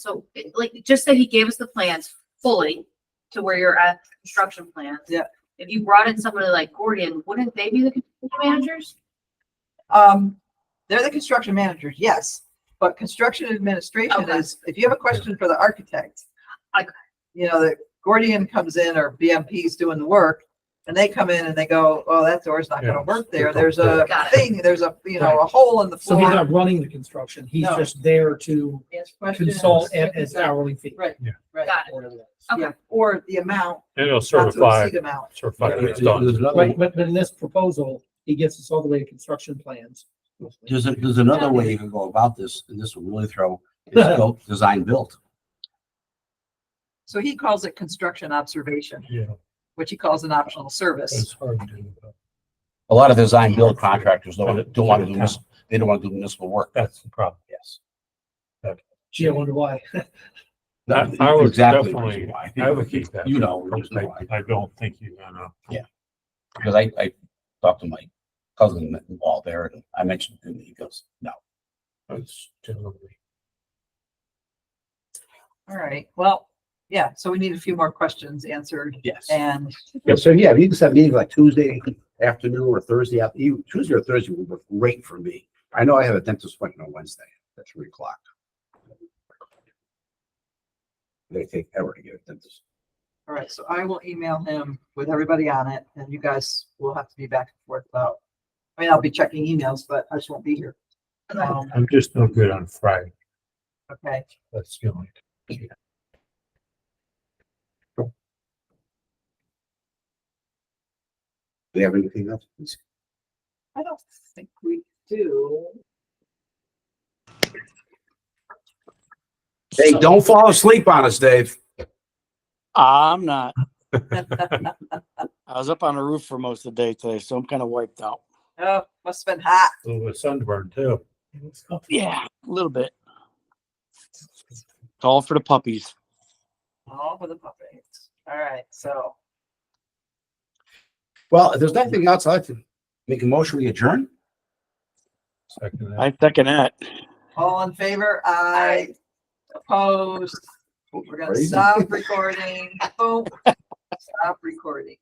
So it- like, just that he gave us the plans fully to where you're at construction plans. Yeah. If you brought in somebody like Gordian, wouldn't they be the construction managers? Um, they're the construction managers, yes, but construction administration Okay. is, if you have a question for the architect. Okay. You know, the Gordian comes in or BMP's doing the work and they come in and they go, oh, that door's not Yeah, gonna work there. it's- There's a Got it. thing, there's a, you know, a hole in the So he's floor. not running the construction, he's No. just there to Ask questions. consult at his hourly fee. Right, Yeah. right. Got it. or whatever that is. Okay. Yeah, Or the amount, And it'll not to certify, exceed amount. certify when There- it's done. There's another, Right, but, but in this proposal, he gets us all the way to construction plans. there's, a- there's another way you can go about this, and this will really throw, is go design build. So he calls it construction observation, Yeah, which he calls an optional service. it's hard to do. but A lot of design build contractors don't, don't want to do this, they don't want to do municipal work. That's the problem. Yes. Gee, I wonder why. I- I would Exactly definitely- why. I would keep that. You know, there's no I, why. I don't think you're gonna. because I, I talked to my cousin involved there, and I mentioned, it, and he goes, no. it's generally- All right, well, yeah, so we need a few more questions answered Yes. and Yeah, so yeah, if you can set a meeting like Tuesday afternoon or Thursday, after- you- Tuesday or Thursday would work great for me. I know I have a dentist appointment on Wednesday at three o'clock. They take ever to get a dentist. All right, so I will email him with everybody on it and you guys will have to be back and forth about. I mean, I'll be checking emails, but I just won't be here. Um, I'm just no good on Friday. okay, That's the only. Do you have anything else? I don't think we do. Hey, don't fall asleep on us, Dave. I'm not. Oh, I was up on the roof for most of the day today, so I'm kind of wiped out. Oh, must have been hot. A little bit sunburned too. Oh, Yeah, a little bit. It's all for the puppies. All for the puppets. All right, so Well, if there's nothing else, I'd like to make a motion, we adjourn. Second half. I second that. all in favor? Aye. Opposed? We're gonna Crazy. stop recording. Boom. Stop recording.